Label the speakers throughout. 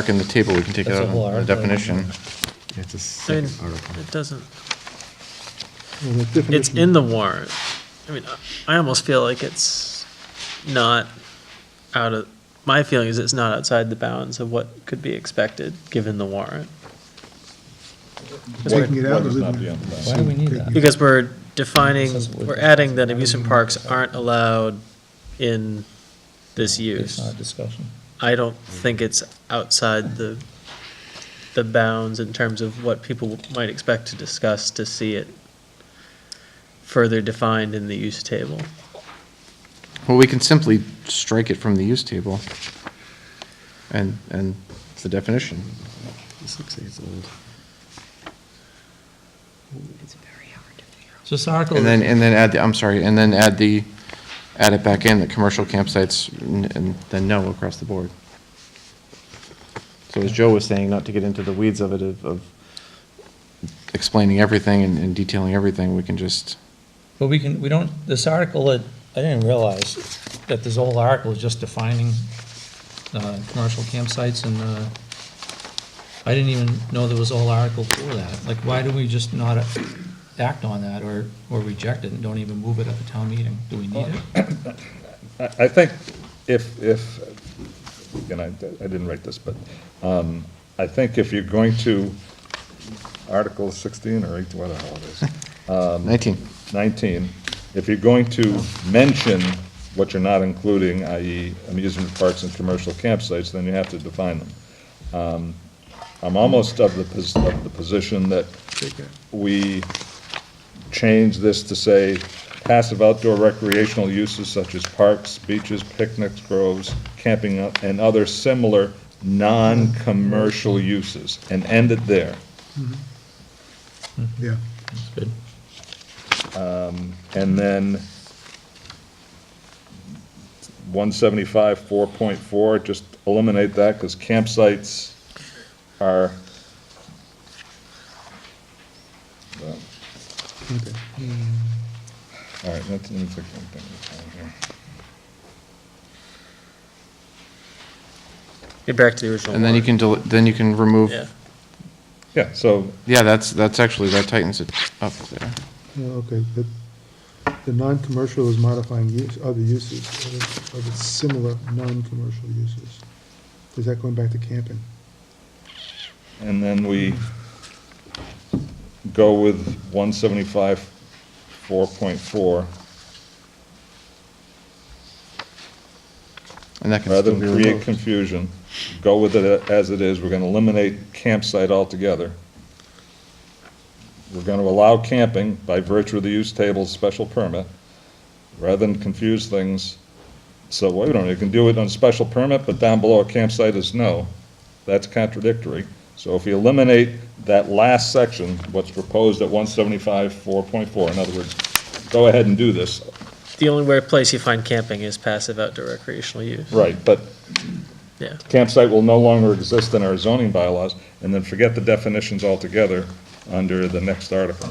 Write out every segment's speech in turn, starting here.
Speaker 1: Mark in the table, we can take it
Speaker 2: That's
Speaker 1: out
Speaker 2: a whole
Speaker 1: of the
Speaker 2: article.
Speaker 1: definition.
Speaker 3: It's a
Speaker 4: I mean,
Speaker 3: second article.
Speaker 4: it doesn't,
Speaker 5: Well, the
Speaker 4: it's
Speaker 5: definition-
Speaker 4: in the warrant. I mean, I I almost feel like it's not out of, my feeling is it's not outside the bounds of what could be expected, given the warrant. Because
Speaker 5: Taking
Speaker 4: we're-
Speaker 5: it out
Speaker 2: What
Speaker 5: of
Speaker 2: is not
Speaker 5: the,
Speaker 2: beyond the bounds? bounds? Why
Speaker 5: do we need that?
Speaker 4: Because we're defining, we're adding that amusement parks aren't allowed in this
Speaker 2: It's
Speaker 4: use.
Speaker 2: not a discussion.
Speaker 4: I don't think it's outside the, the bounds in terms of what people might expect to discuss to see it further defined in the use table.
Speaker 1: Well, we can simply strike it from the use table and, and the definition.
Speaker 3: This looks like it's old.
Speaker 6: It's very hard to figure out.
Speaker 7: So this article,
Speaker 1: And then, and then add, the I'm sorry, and then add the, add it back in, that commercial campsites, n- and then no across the board. So as Joe was saying, not to get into the weeds of it, of, of explaining everything and and detailing everything, we can just,
Speaker 7: but we can, we don't, this article, it- I didn't realize that this whole article is just defining uh, commercial campsites and uh, I didn't even know there was a whole article for that. Like, why do we just not act on that or, or reject it and don't even move it at the town meeting? Do we need it?
Speaker 2: I I think if, if, and I, I didn't write this, but um, I think if you're going to Article 16 or 18, whatever it is,
Speaker 1: 19.
Speaker 2: 19, if you're going to mention what you're not including, i.e. amusement parks and commercial campsites, then you have to define them. Um, I'm almost of the, pos- of the position that we change this to say passive outdoor recreational uses such as parks, beaches, picnics, groves, camping, uh, and other similar non-commercial uses, and end it there.
Speaker 5: yeah.
Speaker 7: That's good.
Speaker 2: And then 175, 4.4, just eliminate that, because campsites are, well,
Speaker 5: Okay.
Speaker 2: all right, that's, let me take one thing. at a time
Speaker 4: Get back to the original
Speaker 1: And then you
Speaker 4: warrant.
Speaker 1: can, del- then you can remove,
Speaker 4: Yeah.
Speaker 2: here. Yeah, so,
Speaker 1: yeah, that's, that's actually, that tightens it up there.
Speaker 5: Yeah, okay, but the non-commercial is modifying use, other uses, of of its similar non-commercial uses. Is that going back to camping?
Speaker 2: and then we go with 175, 4.4,
Speaker 1: And that can
Speaker 2: rather
Speaker 1: still be
Speaker 2: than create
Speaker 1: removed.
Speaker 2: confusion, go with it as it is, we're gonna eliminate campsite altogether. We're gonna allow camping by virtue of the use table's special permit, rather than confuse things. So, wait a minute, you can do it on special permit, but down below a campsite is no. That's contradictory. So if you eliminate that last section, what's proposed at one seventy-five, four point four, in other words, go ahead and do this,
Speaker 4: The only where place you find camping is passive outdoor recreational use.
Speaker 2: right, but
Speaker 4: Yeah.
Speaker 2: campsite will no longer exist in our zoning bylaws, and then forget the definitions altogether under the next article.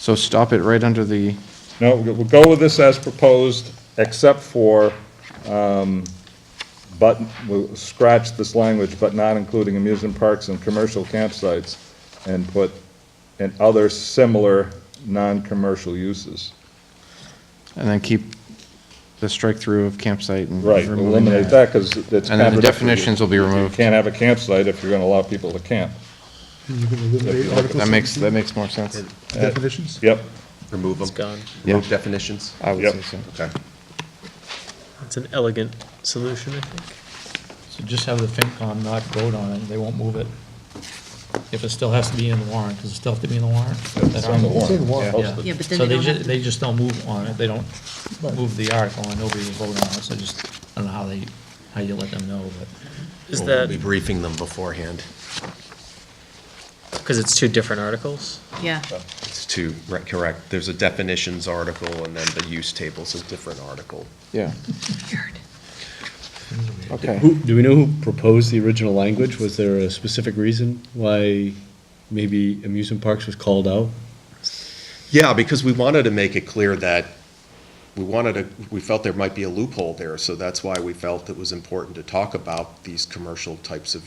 Speaker 1: So stop it right under the,
Speaker 2: No, we'll go with this as proposed, except for, um, but, we'll scratch this language, but not including amusement parks and commercial campsites, and put, and other similar non-commercial uses.
Speaker 1: and then keep the strike-through of campsite and.
Speaker 2: Right,
Speaker 1: removing
Speaker 2: eliminate that, because it's.
Speaker 1: And then the
Speaker 2: contradictory.
Speaker 1: definitions will be
Speaker 2: You
Speaker 1: removed.
Speaker 2: can't have a campsite if you're gonna allow people to camp.
Speaker 5: And you can eliminate Article
Speaker 1: That makes, that
Speaker 5: 17
Speaker 1: makes more sense.
Speaker 5: Definitions?
Speaker 2: Yep,
Speaker 8: Remove them?
Speaker 4: It's gone.
Speaker 8: Remove definitions?
Speaker 1: I would
Speaker 2: Yep.
Speaker 1: say so.
Speaker 8: Okay.
Speaker 4: It's an elegant solution, I think.
Speaker 7: So just have the FinCom not vote on it, they won't move it. If it still has to be in the warrant, does it still have to be in the warrant? That
Speaker 2: it's on the
Speaker 7: article?
Speaker 2: warrant.
Speaker 5: It's in the warrant.
Speaker 7: Yeah.
Speaker 6: Yeah, but then
Speaker 7: So
Speaker 6: they don't
Speaker 7: ju-
Speaker 6: have to-
Speaker 7: They just don't move on it, they don't move the article, and nobody will vote on it, so just, I don't know how they, how you let them know, but.
Speaker 4: Is
Speaker 8: We'll- We'll be
Speaker 4: that
Speaker 8: briefing them beforehand.
Speaker 4: because it's two different articles?
Speaker 6: Yeah,
Speaker 8: It's to, right, correct, there's a definitions article, and then the use table's a different article.
Speaker 1: Yeah,
Speaker 6: weird.
Speaker 1: okay.
Speaker 9: Who, do we know who proposed the original language? Was there a specific reason why maybe amusement parks was called out?
Speaker 8: Yeah, because we wanted to make it clear that we wanted to, we felt there might be a loophole there, so that's why we felt it was important to talk about these commercial types of